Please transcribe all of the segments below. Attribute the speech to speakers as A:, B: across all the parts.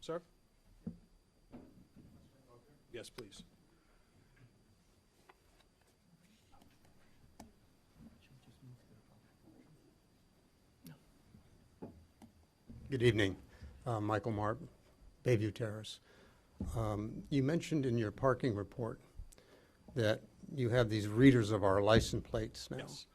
A: Sir? Yes, please.
B: Good evening. Uh, Michael Marb, Bayview Terrace. Um, You mentioned in your parking report that you have these readers of our license plates now.
A: Yes.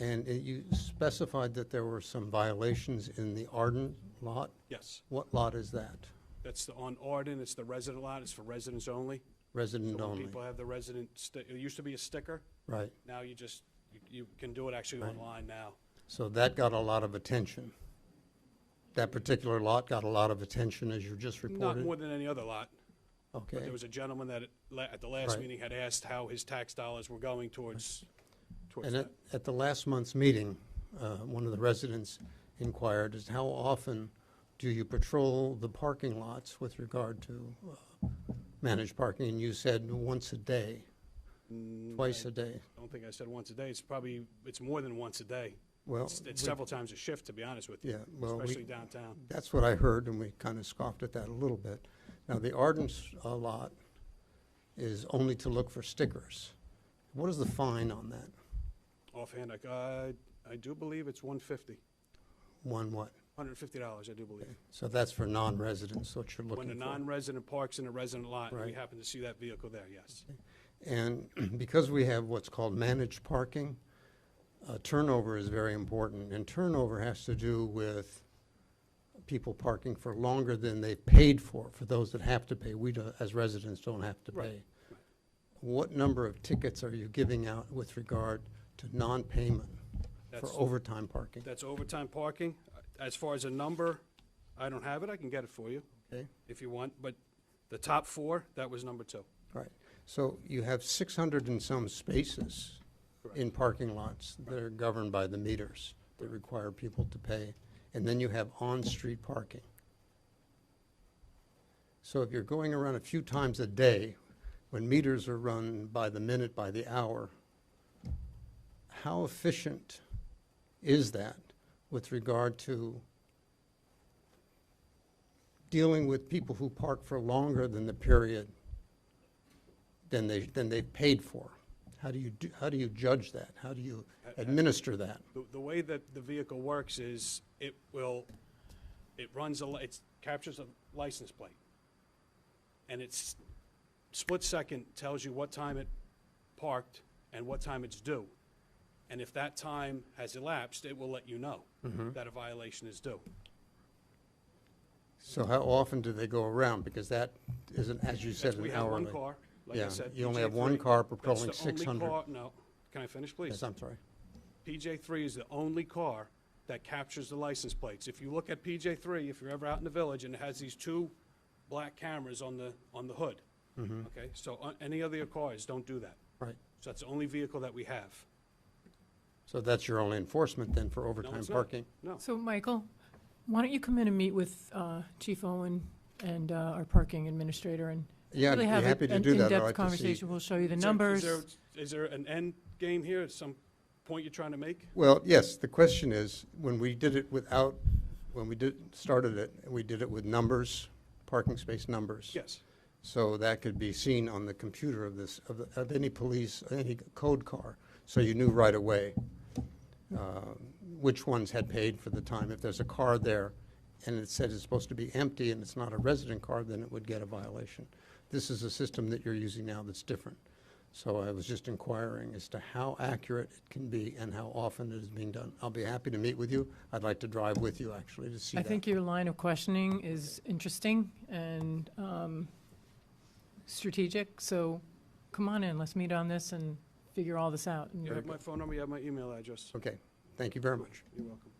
B: And it- you specified that there were some violations in the Arden lot.
A: Yes.
B: What lot is that?
A: That's the, on Arden, it's the resident lot, it's for residents only.
B: Resident
A: So when
B: only,
A: people have the resident, sti- it used to be a sticker,
B: right.
A: now you just, you- you can do it actually online now.
B: So that got a lot of attention. That particular lot got a lot of attention, as you just
A: Not
B: reported?
A: more than any other lot. But
B: Okay,
A: there was a gentleman that, at la- at the last
B: Right.
A: meeting, had asked how his tax dollars were going towards, towards
B: And
A: that.
B: at, at the last month's meeting, uh, one of the residents inquired, is how often do you patrol the parking lots with regard to uh, managed parking? And you said once a day, twice a day.
A: Mm, I don't think I said once a day, it's probably, it's more than once a day.
B: Well,
A: It's it's
B: we-
A: several times a shift, to be honest with you.
B: Yeah, well, we-
A: Especially downtown.
B: That's what I heard, and we kind of scoffed at that a little bit. Now, the Arden's uh, lot is only to look for stickers. What is the fine on that?
A: Offhand, I, uh, I do believe it's 150,
B: One what?
A: $150, I do believe.
B: So that's for non-residents, what you're looking for.
A: When a non-resident parks in a resident lot, and we
B: Right.
A: happen to see that vehicle there, yes.
B: And because we have what's called managed parking, uh, turnover is very important. And turnover has to do with people parking for longer than they've paid for, for those that have to pay. We, don't- as residents, don't have to
A: Right,
B: pay. What number of tickets are you giving out with regard to non-payment for
A: That's-
B: overtime parking?
A: That's overtime parking. Uh, As far as a number, I don't have it, I can get it for you,
B: Okay,
A: if you want, but the top four, that was number two.
B: all right. So you have 600 and some spaces in parking lots that are governed by the meters that require people to pay. And then you have on-street parking. So if you're going around a few times a day, when meters are run by the minute, by the hour, how efficient is that with regard to dealing with people who park for longer than the period than they, than they paid for? How do you, do- how do you judge that? How do you administer that?
A: The, the way that the vehicle works is it will, it runs, a li- it captures a license plate. And it's split second tells you what time it parked and what time it's due. And if that time has elapsed, it will let you know
B: Mm-hmm.
A: that a violation is due.
B: So how often do they go around? Because that isn't, as you said,
A: That's-
B: an
A: We have one
B: hourly.
A: car, like I
B: Yeah,
A: said.
B: you only
A: PJ3.
B: have one car
A: That's the
B: patrolling
A: only
B: 600.
A: car- No, can I finish, please?
B: Yes, I'm sorry.
A: PJ three is the only car that captures the license plates. If you look at PJ three, if you're ever out in the village, and it has these two black cameras on the, on the hood. Okay, so uh, any other cars don't do that.
B: Right.
A: So that's the only vehicle that we have.
B: So that's your only enforcement then for
A: No,
B: overtime
A: it's not.
B: parking?
A: No,
C: So, Michael, why don't you come in and meet with uh, Chief Owen and uh, our parking administrator and
B: Yeah, I'd
C: really
B: be
C: have a-
B: happy to
C: an
B: do that. I'd
C: in-depth
B: like to see-
C: conversation? We'll show you the
A: Is there- is
C: numbers.
A: there- Is there an end game here, Is some point you're trying to make?
B: Well, yes, the question is, when we did it without, when we did, started it, we did it with numbers, parking space numbers.
A: Yes,
B: So that could be seen on the computer of this, of, the- of any police, any code car, so you knew right away uh, which ones had paid for the time. If there's a car there and it said it's supposed to be empty and it's not a resident car, then it would get a violation. This is a system that you're using now that's different. So I was just inquiring as to how accurate it can be and how often it is being done. I'll be happy to meet with you. I'd like to drive with you, actually, to see
C: I
B: that.
C: think your line of questioning is interesting and um, strategic, so come on in, let's meet on this and figure all this out. and
A: you have my phone number, you have my email address.
B: Okay, thank you very much.
A: You're welcome.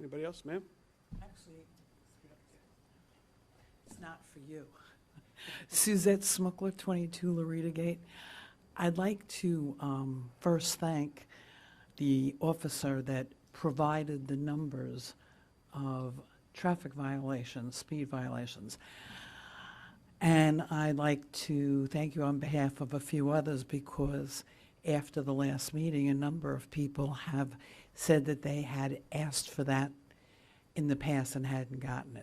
A: Anybody else, ma'am?
D: Actually, it's not for you. Suzette Smukler, 22 Lorita Gate. I'd like to um, first thank the officer that provided the numbers of traffic violations, speed violations. And I'd like to thank you on behalf of a few others because after the last meeting, a number of people have said that they had asked for that in the past and hadn't gotten it.